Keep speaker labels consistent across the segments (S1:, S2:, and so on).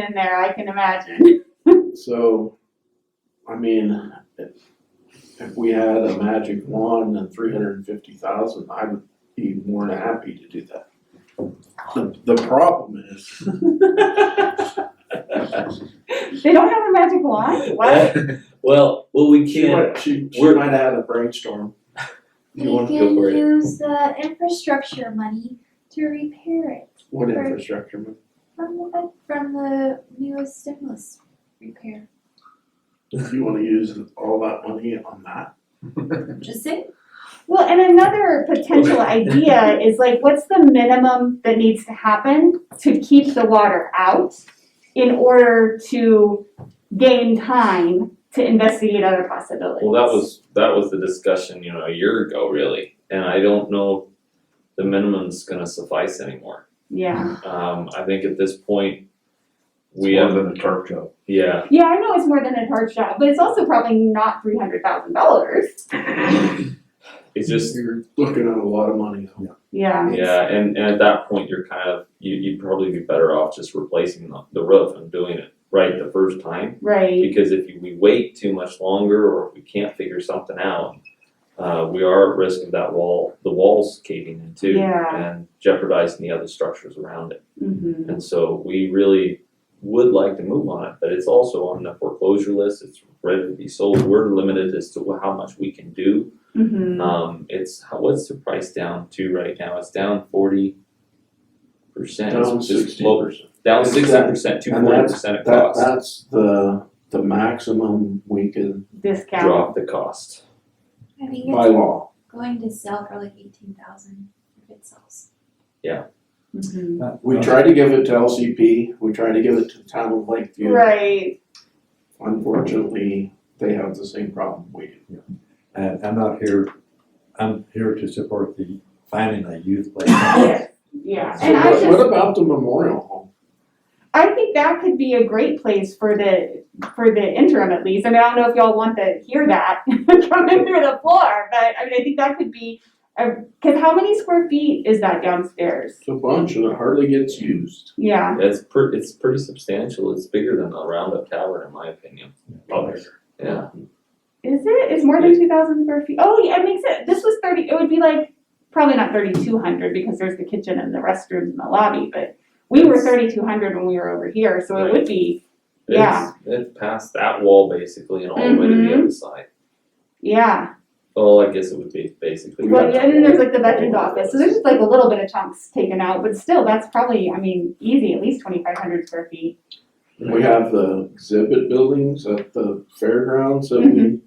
S1: in there, I can imagine.
S2: So, I mean, if, if we had a magic wand and three hundred and fifty thousand, I would be more than happy to do that. The, the problem is,
S1: They don't have a magic wand? What?
S3: Well, well, we
S2: she
S3: can't,
S2: might, she, she
S3: We're-
S2: might have a brainstorm.
S3: You
S4: We
S3: wanna go
S4: can
S3: for it?
S4: use the infrastructure money to repair it
S2: What
S4: Right.
S2: infrastructure? man?
S4: from the, from the newest stimulus repair.
S2: You wanna use all that money on that?
S4: Just saying,
S1: Well, and another potential idea is like, what's the minimum that needs to happen to keep the water out in order to gain time to investigate other possibilities?
S3: well, that was, that was the discussion, you know, a year ago really, and I don't know the minimum's gonna suffice anymore.
S1: Yeah,
S3: Um, I think at this point,
S5: It's
S3: we
S5: more
S3: have,
S5: than a tarp job.
S3: yeah,
S1: yeah, I know it's more than a hard job, but it's also probably not three hundred thousand dollars.
S3: it's just,
S2: You're looking at a lot of money though.
S1: Yeah,
S3: yeah, and, and at that point, you're kind of, you, you'd probably be better off just replacing the, the roof and doing it right the first time.
S1: right,
S3: Because if you- we wait too much longer, or if we can't figure something out, uh, we are at risk of that wall, the walls caving in too.
S1: Yeah.
S3: And jeopardizing the other structures around it.
S1: mhm,
S3: And so we really would like to move on it, but it's also on the foreclosure list, it's ready to be sold, we're limited as to how much we can do.
S1: mhm.
S3: Um, it's, how- what's the price down to right now, it's down forty percent.
S2: Down sixty percent.
S3: Down
S2: Exactly.
S3: sixty percent, two forty percent of
S2: That,
S3: cost,
S2: that's the, the maximum we can
S1: Discount,
S3: drop the cost.
S4: I think
S2: by
S4: it's
S2: law.
S4: going to sell for like eighteen thousand if it sells.
S1: mhm.
S5: Uh,
S3: Uh-huh.
S2: We tried to give it to LCP, we tried to give it to the town of Lakeview.
S1: Right,
S2: Unfortunately, they have the same problem we do.
S5: And I'm not here, I'm here to support the finding a youth playground.
S1: yeah, yeah,
S2: So
S1: and I
S2: what,
S1: just.
S2: what about the memorial home?
S1: I think that could be a great place for the, for the interim at least. I mean, I don't know if y'all want to hear that coming through the floor, but I mean, I think that could be, a- cause how many square feet is that downstairs?
S2: It's a bunch and it hardly gets used.
S1: Yeah,
S3: It's pretty, it's pretty substantial, it's bigger than the Roundup Tavern in my opinion.
S6: Oh,
S3: Yeah,
S1: is it? It's more than two thousand square feet. Oh, yeah, it makes it, this was thirty, it would be like, probably not thirty-two hundred because there's the kitchen and the restrooms and the lobby, but we were thirty-two hundred when we were over here, so it would be, Yeah. Mm-hmm.
S3: it's, it's past that wall basically and all the way to the other side.
S1: yeah.
S3: Oh, I guess it would be basically.
S1: Well, yeah, and then there's like the veterans office, so there's just like a little bit of chunks taken out, but still, that's probably, I mean, easy, at least twenty-five hundred square feet.
S2: We have the exhibit buildings at the fairgrounds that we
S1: Mm-hmm.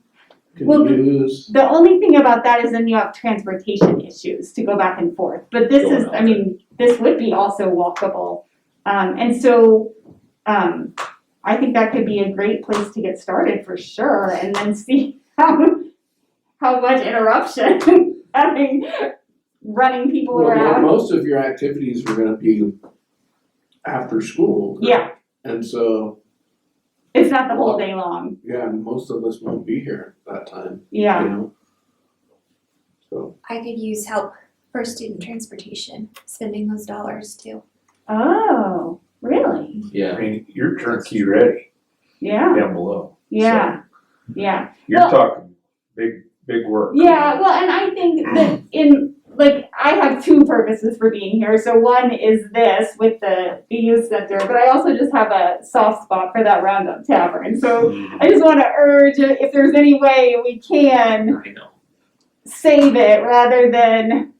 S1: Well,
S2: can use.
S1: The only thing about that is then you have transportation issues to go back and forth, but this is, I mean, this would be also walkable. Um, and so, um, I think that could be a great place to get started for sure, and then see how, how much interruption, I mean, running people
S2: Well, mo-
S1: around.
S2: most of your activities are gonna be after school.
S1: Yeah,
S2: And so,
S1: it's not the whole day long,
S2: yeah, most of us won't be here at that time, you
S1: yeah.
S2: know? So,
S4: I could use help for student transportation, spending those dollars too.
S1: Oh, really?
S3: Yeah,
S6: mean, you're turnkey ready
S1: Yeah,
S6: down below.
S1: yeah, yeah,
S6: You're
S1: Well-
S6: talking big, big work.
S1: yeah. Well, and I think that in like I have two purposes for being here. So one is this with the the youth center, but I also just have a soft spot for that Roundup Tavern. So I just want to urge if there's any way we can
S3: I know.
S1: save it rather than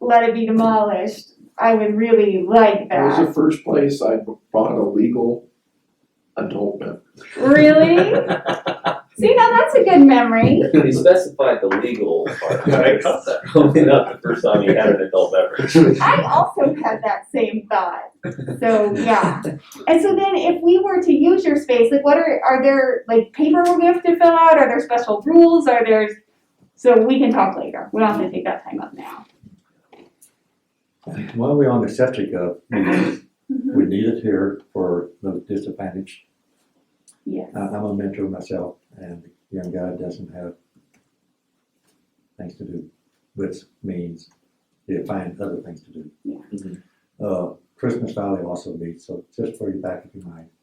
S1: let it be demolished. I would really like
S2: that was
S1: that.
S2: the first place I bought a legal adult beverage.
S1: Really? See, now that's a good memory.
S3: He specified the legal part.
S6: Yeah, I
S3: That's Probably not the first time you had an adult beverage.
S1: I also had that same thought. So yeah. And so then if we were to use your space, like what are are there like paperwork we have to fill out? Are there special rules? Are there so we can talk later. We don't have to take that time up now.
S5: While we're on the subject of, we need it here for the disadvantaged.
S1: Yes.
S5: I- I'm a mentor myself and the young guy doesn't have things to do, which means he'll find other things to do.
S1: Yeah.
S3: Mhm.
S5: Uh, Christmas Valley also meets, so just for you back of your mind,